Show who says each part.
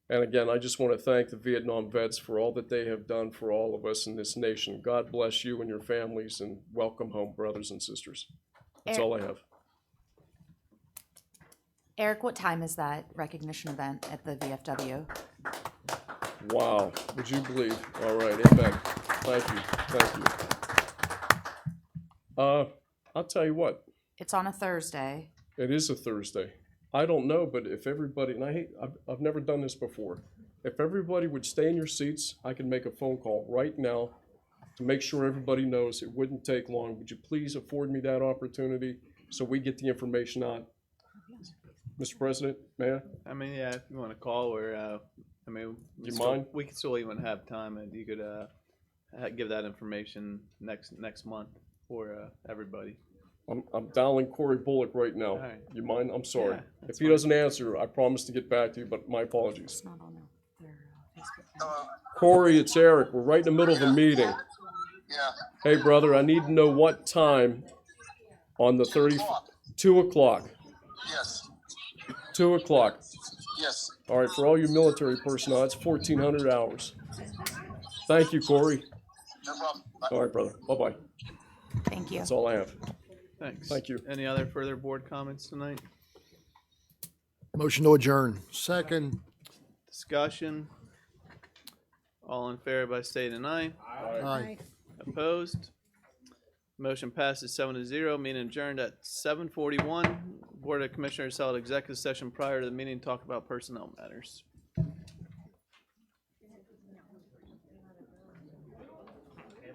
Speaker 1: And again, I just want to thank the Vietnam vets for all that they have done for all of us in this nation. God bless you and your families, and welcome home, brothers and sisters. That's all I have.
Speaker 2: Eric, what time is that recognition event at the VFW?
Speaker 1: Wow, would you believe? All right, Impact. Thank you, thank you. Uh, I'll tell you what,
Speaker 2: It's on a Thursday.
Speaker 1: it is a Thursday. I don't know, but if everybody, and I hate, I've, I've never done this before. If everybody would stay in your seats, I can make a phone call right now to make sure everybody knows it wouldn't take long. Would you please afford me that opportunity so we get the information out? Mr. President, may I?
Speaker 3: I mean, yeah, if you want to call or, uh, I mean, we
Speaker 1: You
Speaker 3: still-
Speaker 1: mind?
Speaker 3: We could still even have time, and you could uh, ha- give that information next next month for uh, everybody.
Speaker 1: I'm, I'm dialing Corey Bullock right now.
Speaker 3: right.
Speaker 1: You mind? I'm sorry.
Speaker 3: Yeah,
Speaker 1: If he doesn't answer, I promise to get back to you, but my apologies.
Speaker 2: It's not on their uh, Facebook. page.
Speaker 1: Corey, it's Eric. We're right in the middle of a meeting.
Speaker 4: Yeah,
Speaker 1: Hey, brother, I need to know what time on the 30,
Speaker 4: o'clock.
Speaker 1: 2 o'clock.
Speaker 4: yes,
Speaker 1: 2 o'clock.
Speaker 4: yes.
Speaker 1: All right, for all you military personnel, that's 1,400 hours. Thank you, Corey.
Speaker 4: No problem. Bye.
Speaker 1: All right, brother. Bye bye.
Speaker 2: Thank you.
Speaker 1: That's all I have.
Speaker 3: Thanks.
Speaker 1: Thank you.
Speaker 3: Any other further board comments tonight?
Speaker 5: Motion to adjourn. Second.
Speaker 3: Discussion? All in favor by state and I.
Speaker 5: Aye.
Speaker 3: Opposed? Motion passes seven to zero, meeting adjourned at seven forty-one. Board of Commissioners held executive session prior to the meeting, to talk about personnel matters.